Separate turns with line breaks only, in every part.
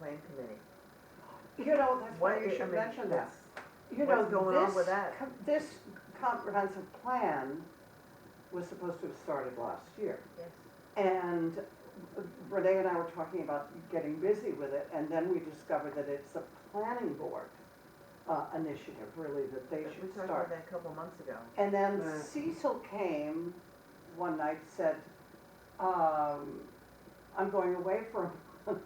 same committee.
You know, that's why
What
you
is-
should mention that. You know,
What's going on
this
with that?
com- This comprehensive plan was supposed to have started last year.
Yes.
And Renee and I were talking about getting busy with it, and then we discovered that it's a planning board uh, initiative, really, that they
We
should
talked about
start.
that a couple months ago.
And then
Right.
Cecil came one night, said, um, I'm going away for a month.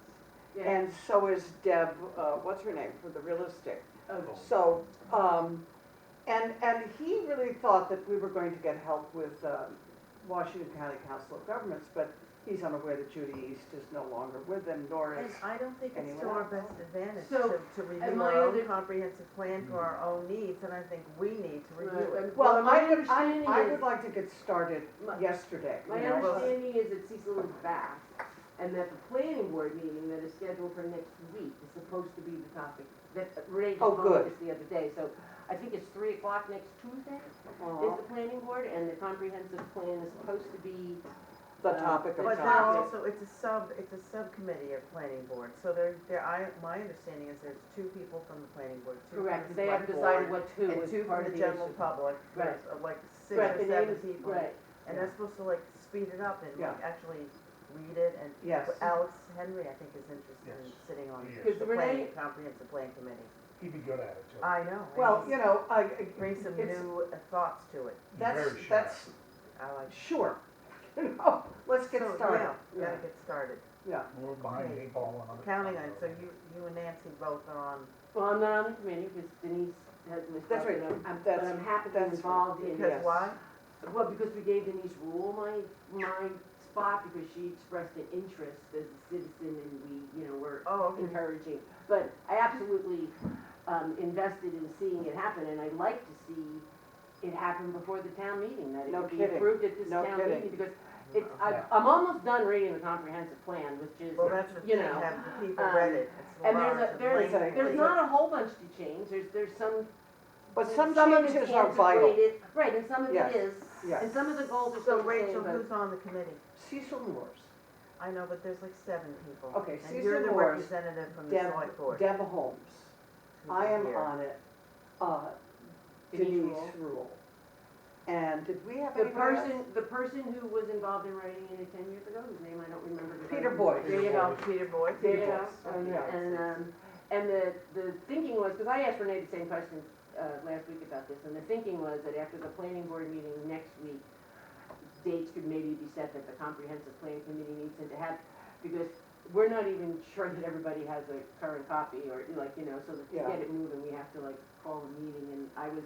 And so is Deb, uh, what's her name, for the real estate.
uh,
So, um, and, and he really thought that we were going to get help with, um, Washington County Council of Governments, but he's unaware that Judy East is no longer with them, nor
And
is,
I don't think it's to
Anyone
our
else?
best advantage
So,
to, to review
my
our own
other-
comprehensive plan for our own needs, and I think we need to review it.
well,
my
I would, I,
understanding
I
is-
would like to get started
My-
yesterday, you
My
know, but-
understanding is that Cecil is back, and that the planning board meeting that is scheduled for next week is supposed to be the topic. That Renee just
Oh,
told
good.
me this the other day, so I think it's three o'clock next Tuesday is
Aw,
the planning board, and the comprehensive plan is supposed to be,
the topic of
uh, But
they're
they're
topic.
topic.
also, it's a sub, it's a subcommittee of planning board, so there, there, I, my understanding is there's two people from the planning board, two from
correct,
the
they have
select
decided
board,
what two
and
is
two
part
from
of
the
the
general
issue.
public,
Right.
there's uh, like six
Right,
or
the name
seven
is-
people.
Right,
And that's supposed to like speed it up and like actually read it and
Yes,
Alex Henry, I think, is interested in
Yes.
sitting on
He
is.
the planning,
Renee-
comprehensive plan committee.
He'd be good at it, too.
I know. and
well,
he's-
you know, I, I-
Bring some
it's-
new uh, thoughts to it.
He's
that's,
very sharp.
that's,
I like.
sure, you know, let's get
So,
started,
yeah,
yeah,
Gotta get started.
yeah.
We're behind the
Okay.
eight ball on other.
Counting on, so you, you and Nancy both are on,
well, I'm not on the committee, because Denise has missed
That's
out,
right.
but I'm- I'm, but
That's-
I'm happy to be
that's right.
involved in
because
Yes.
why?
Well, because we gave Denise Rule my, my spot because she expressed an interest as a citizen and we, you know, were
Oh, okay.
encouraging. But I absolutely um, invested in seeing it happen and I'd like to see it happen before the town meeting, that it
No
would be
kidding.
approved at this
No
town
kidding.
meeting. Because it's, I'm,
Yeah.
I'm almost done reading the comprehensive plan, which is,
Well, that's the
you
thing,
know,
have the people
um,
read it. It's
and there's
large
a, there's,
lengthy.
there's not a whole bunch to change, there's, there's some.
But some
of it's
changes are vital,
antiquated, Right, and some of
Yes,
it is,
yes.
and some of the goals are
So
still the same,
Rachel,
but-
who's on the committee?
Cecil Moore's,
I know, but there's like seven people.
Okay,
And you're
Susan
the
Morris,
representative from the
Deb,
select board.
Deb Holmes.
who's
I am
here.
on it, uh,
Denise
Denise
Rule.
Rule. And did we have
The
anybody
person,
else?
the person who was involved in writing it ten years ago, whose name I don't remember. but-
Peter Boyd.
There you go,
Peter Boyd.
there you
Peter
go.
Boyd. Oh,
Um,
Yeah.
And, um, and the, the thinking was, because I asked Renee the same question, uh, last week about this, and the thinking was that after the planning board meeting next week, dates could maybe be set that the comprehensive plan committee needs to have, because we're not even sure that everybody has a current copy or like, you know, so that to
Yeah.
get it moving, we have to like call a meeting and I was,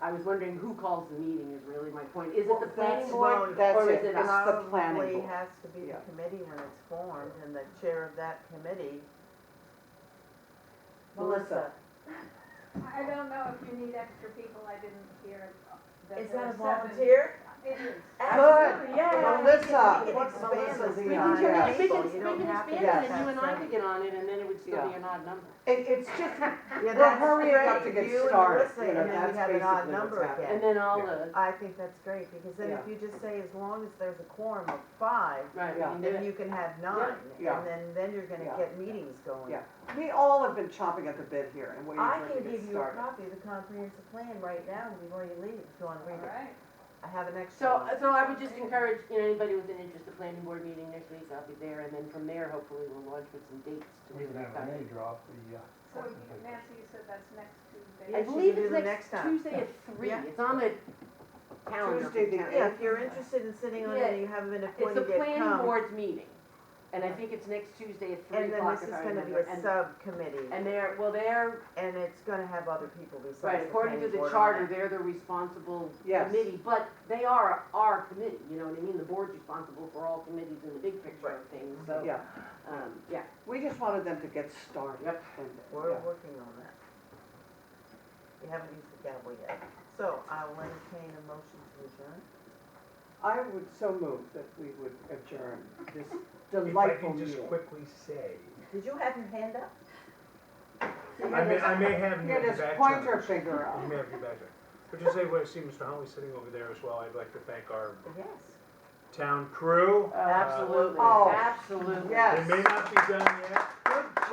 I was wondering who calls the meeting is really my point. Is it
Well,
the
that's-
planning board?
well, that's
or
it.
is it
It's the planning
Probably
board.
has to be the
Yeah.
committee when it's formed, and the chair of that committee.
Melissa.
I don't know if you need extra people, I didn't hear that
Is
there
that a
were seven.
volunteer?
It is.
Good.
Yeah.
Melissa,
It
what's
expands
Melissa's
the
We
email
time.
can,
address?
turn it- we
Yeah.
can, we can expand it
Yes.
and you and I could get on it and then it would still be
Yeah.
an odd number.
It, it's just,
Yeah,
We're
that's
hurrying up
great.
to get
You and
started,
Melissa,
you know,
and then we
that's
have an odd
basically what's
number
happening.
And
again.
then all the,
I think that's great, because then if you just say, as long as there's a quorum of five,
right, we
Yeah.
can do
then
it.
you can have nine,
Yeah.
and then, then you're gonna
Yeah.
get meetings going.
Yeah. we all have been chomping at the bit here and waiting
I
for it
can
to get
give you a
started.
copy of the comprehensive plan right now before you leave, if you wanna
All
read it.
right.
I have an extra
So, uh,
one.
so I would just encourage, you know, anybody with an interest, the planning board meeting next week, I'll be there and then from there, hopefully we'll launch with some dates to
We
really
can have
start.
Renee drop the, uh,
So you- Nancy, you said that's next Tuesday.
I
Yeah, she
believe
can do
it's
the next
next
time.
Tuesday at three,
Yeah.
it's on the calendar.
Tuesday the
Yeah, if you're interested in sitting on it and
Yeah.
you haven't been
It's a
appointed yet,
planning
come.
board's meeting, and I think it's next Tuesday at three
And then
o'clock
this
if
is
I
gonna be
remember.
a
And,
subcommittee,
and they're, well, they're,
and it's gonna have other people
right,
besides the
according to
planning
the
board on
charter,
it.
they're the responsible
Yes.
committee, but they are our committee, you know what I mean? The board's responsible for all committees in the big picture of things, so,
Yeah,
um, yeah.
we just wanted them to get started.
Yep.
and-
We're
yeah.
working on that. We haven't used the gavel yet, so I will entertain a motion to adjourn.
I would so move that we would adjourn this
if I
delightful
can just
meeting.
quickly say,
Did you have your hand up?
I may, I may have
Get
you
his
back to
pointer finger
You
out.
may have you back to But just say, well, I see Mr. Huntley sitting over there as well. I'd like to thank our
Yes.
town crew. Uh,
Absolutely,
Oh,
absolutely.
yes.
It may not be done yet,